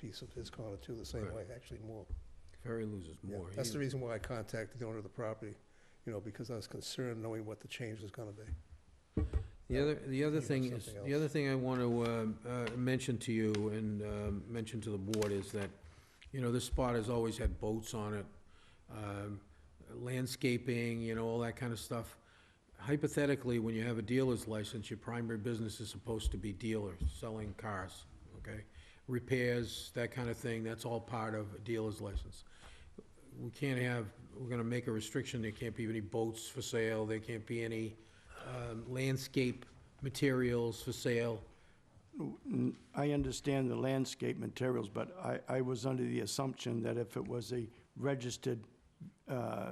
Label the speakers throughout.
Speaker 1: piece of his corner too, the same way, actually more.
Speaker 2: Ferry loses
Speaker 1: Yeah,
Speaker 2: more.
Speaker 1: That's the
Speaker 2: He-
Speaker 1: reason why I contacted the owner of the property, you know, because I was concerned knowing what the change was gonna be.
Speaker 2: The other, the
Speaker 1: You
Speaker 2: other
Speaker 1: have
Speaker 2: thing is,
Speaker 1: something
Speaker 2: the
Speaker 1: else.
Speaker 2: other thing I want to uh, uh, mention to you and um, mention to the board is that, you know, this spot has always had boats on it, um, landscaping, you know, all that kind of stuff. Hypothetically, when you have a dealer's license, your primary business is supposed to be dealer, selling cars, okay? Repairs, that kind of thing, that's all part of a dealer's license. We can't have, we're gonna make a restriction, there can't be any boats for sale, there can't be any um, landscape materials for sale.
Speaker 3: N- I understand the landscape materials, but I, I was under the assumption that if it was a registered, uh,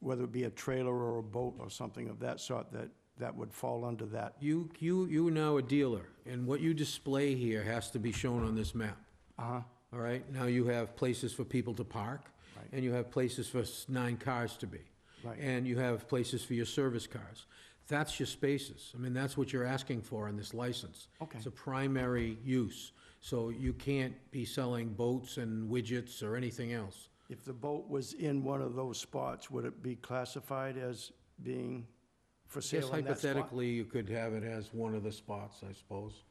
Speaker 3: whether it be a trailer or a boat or something of that sort, that, that would fall under that.
Speaker 2: You, you, you are now a dealer, and what you display here has to be shown on this map,
Speaker 3: Uh-huh,
Speaker 2: all right? Now you have places for people to park,
Speaker 3: Right.
Speaker 2: and you have places for s- nine cars to be.
Speaker 3: Right.
Speaker 2: And you have places for your service cars. That's your spaces. I mean, that's what you're asking for in this license.
Speaker 3: Okay.
Speaker 2: It's a primary use, so you can't be selling boats and widgets or anything else.
Speaker 3: If the boat was in one of those spots, would it be classified as being for
Speaker 2: Yes,
Speaker 3: sale in that spot?
Speaker 2: hypothetically, you could have it as one of the spots, I suppose.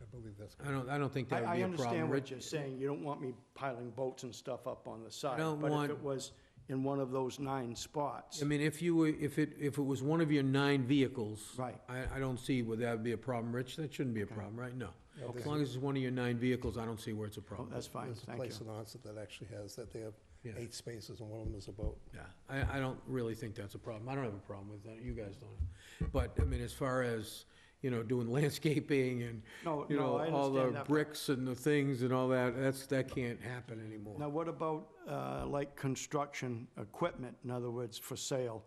Speaker 1: I believe that's.
Speaker 2: I don't, I don't think
Speaker 3: I,
Speaker 2: that would
Speaker 3: I
Speaker 2: be a problem.
Speaker 3: understand what
Speaker 2: Rich-
Speaker 3: you're saying. You don't want me piling boats and stuff up on the side.
Speaker 2: don't
Speaker 3: But
Speaker 2: want-
Speaker 3: if it was in one of those nine spots,
Speaker 2: I mean, if you were, if it, if it was one of your nine vehicles.
Speaker 3: Right.
Speaker 2: I, I don't see where that would be a problem, Rich, that shouldn't be a problem, right? No. As long as it's one of your nine vehicles, I don't see where it's a
Speaker 3: oh,
Speaker 2: problem.
Speaker 3: that's fine,
Speaker 1: There's a
Speaker 3: thank you.
Speaker 1: place in Onset that actually has that. They have
Speaker 2: Yeah.
Speaker 1: eight spaces and one of them is a boat.
Speaker 2: Yeah, I, I don't really think that's a problem, I don't have a problem with that, you guys don't. But, I mean, as far as, you know, doing landscaping and,
Speaker 3: No,
Speaker 2: you
Speaker 3: no,
Speaker 2: know,
Speaker 3: I
Speaker 2: all
Speaker 3: understand
Speaker 2: the
Speaker 3: that.
Speaker 2: bricks and the things and all that, that's, that can't happen
Speaker 3: Now,
Speaker 2: anymore.
Speaker 3: what about, uh, like, construction equipment, in other words, for sale?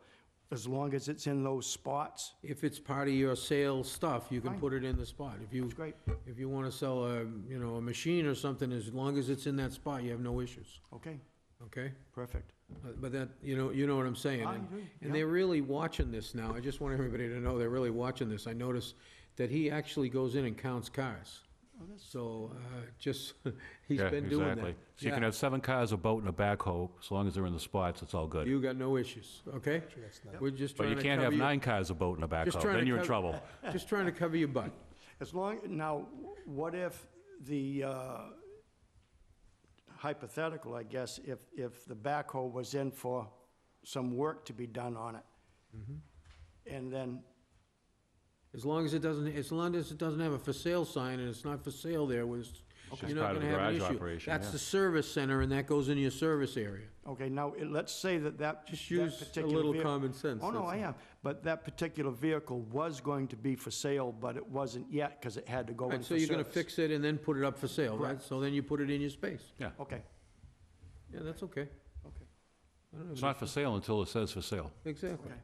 Speaker 3: As long as it's in those spots?
Speaker 2: If it's part of your sales stuff, you can
Speaker 3: Fine.
Speaker 2: put it in the spot. If you,
Speaker 3: That's great.
Speaker 2: if you wanna sell a, you know, a machine or something, as long as it's in that spot, you have no issues,
Speaker 3: Okay,
Speaker 2: okay?
Speaker 3: perfect.
Speaker 2: Uh, But that, you know, you know what I'm saying?
Speaker 3: I
Speaker 2: and-
Speaker 3: do,
Speaker 2: And
Speaker 3: yeah.
Speaker 2: they're really watching this now. I just want everybody to know they're really watching this. I noticed that he actually goes in and counts cars. So, uh, just, he's
Speaker 4: Yeah,
Speaker 2: been doing
Speaker 4: exactly.
Speaker 2: that.
Speaker 4: So you can
Speaker 2: Yeah.
Speaker 4: have seven cars, a boat, and a backhoe, as long as they're in the spots, it's all good.
Speaker 2: You got no issues, okay?
Speaker 1: Actually, that's not.
Speaker 2: We're just
Speaker 4: But
Speaker 2: trying
Speaker 4: you
Speaker 2: to
Speaker 4: can't have
Speaker 2: cover your,
Speaker 4: nine cars, a boat, and a
Speaker 2: Just
Speaker 4: backhoe,
Speaker 2: trying
Speaker 4: then
Speaker 2: to
Speaker 4: you're in
Speaker 2: cover-
Speaker 4: trouble.
Speaker 2: just trying to cover your butt.
Speaker 3: As long, now, what if the, uh, hypothetical, I guess, if, if the backhoe was in for some work to be done on it? And then,
Speaker 2: As long as it doesn't, as long as it doesn't have a for sale sign and it's not for sale there, was,
Speaker 4: It's
Speaker 2: you're
Speaker 4: just
Speaker 2: not
Speaker 4: part of
Speaker 2: gonna
Speaker 4: the
Speaker 2: have an
Speaker 4: garage
Speaker 2: issue.
Speaker 4: operation,
Speaker 2: That's the
Speaker 4: yeah.
Speaker 2: service center and that goes into your service area.
Speaker 3: okay, now, it- let's say that that.
Speaker 2: Just
Speaker 3: that
Speaker 2: use a
Speaker 3: particular
Speaker 2: little
Speaker 3: vehi-
Speaker 2: common sense.
Speaker 3: Oh, no,
Speaker 2: that's
Speaker 3: I
Speaker 2: all.
Speaker 3: am, but that particular vehicle was going to be for sale, but it wasn't yet, because it had to go in
Speaker 2: Right,
Speaker 3: Oh, for
Speaker 2: so you're gonna
Speaker 3: service.
Speaker 2: fix it and then put it up for sale, right?
Speaker 3: Correct.
Speaker 2: So then you put it in your space.
Speaker 3: Okay,
Speaker 2: Yeah, that's okay.
Speaker 3: okay,
Speaker 2: I don't have
Speaker 4: It's
Speaker 2: an
Speaker 4: not for sale until it says for sale.
Speaker 2: issue. Exactly,
Speaker 3: okay,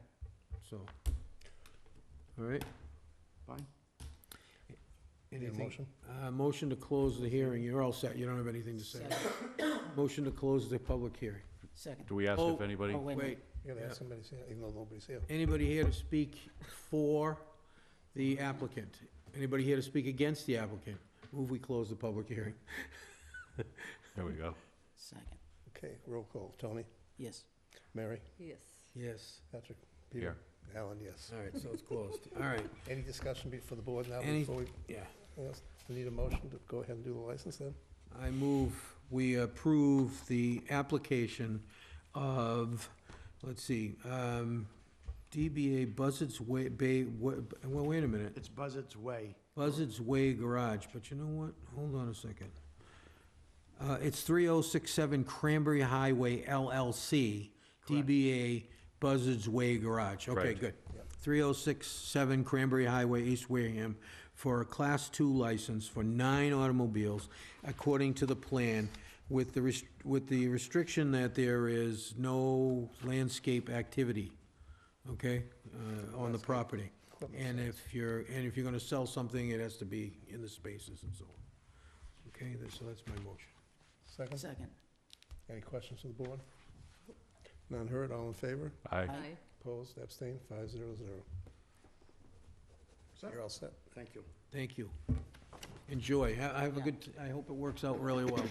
Speaker 2: so. All right.
Speaker 3: fine.
Speaker 1: Need a
Speaker 2: anything-
Speaker 1: motion?
Speaker 2: Uh, motion to close the hearing. You're all set. You don't have anything to say. Motion to close the public hearing.
Speaker 5: Second.
Speaker 4: Do we ask
Speaker 2: Oh,
Speaker 4: if anybody?
Speaker 5: Oh, wait a minute.
Speaker 2: Wait,
Speaker 1: You gotta
Speaker 2: Yeah.
Speaker 1: ask somebody, to say it, even though nobody's here.
Speaker 2: anybody here to speak for the applicant? Anybody here to speak against the applicant? Move we close the public hearing.
Speaker 4: There we go.
Speaker 5: Second.
Speaker 1: Okay, roll call. Tony,
Speaker 5: Yes.
Speaker 1: Mary,
Speaker 6: Yes.
Speaker 2: Yes,
Speaker 1: Patrick, Peter, Alan, yes.
Speaker 2: all right, so it's closed. All right,
Speaker 1: Any discussion be- for the board now
Speaker 2: Any-
Speaker 1: before we,
Speaker 2: yeah.
Speaker 1: yes, we need a motion to go ahead and do the license then?
Speaker 2: I move we approve the application of, let's see, um, DBA Buzzards Way, Bay, Wa- well, wait a minute,
Speaker 3: It's Buzzard's Way.
Speaker 2: Buzzards Way Garage, but you know what? Hold on a second. Uh, It's 3067 Cranberry Highway LLC, DBA Buzzards Way Garage. Okay,
Speaker 4: Correct.
Speaker 2: good. 3067 Cranberry Highway, East Wareham, for a Class II license for nine automobiles, according to the plan, with the, res- with the restriction that there is no landscape activity, okay, uh, on the property. And if you're, and if you're gonna sell something, it has to be in the spaces and so on. Okay, that's- so that's my motion.
Speaker 1: Second?
Speaker 5: Second.
Speaker 1: Any questions from the board? None heard, all in favor?
Speaker 4: Aye.
Speaker 5: Aye.
Speaker 1: Opposed, abstained, five zero zero. You're all set.
Speaker 3: Thank you.
Speaker 2: Thank you. enjoy. Ha- Have a good, I hope it works out really well.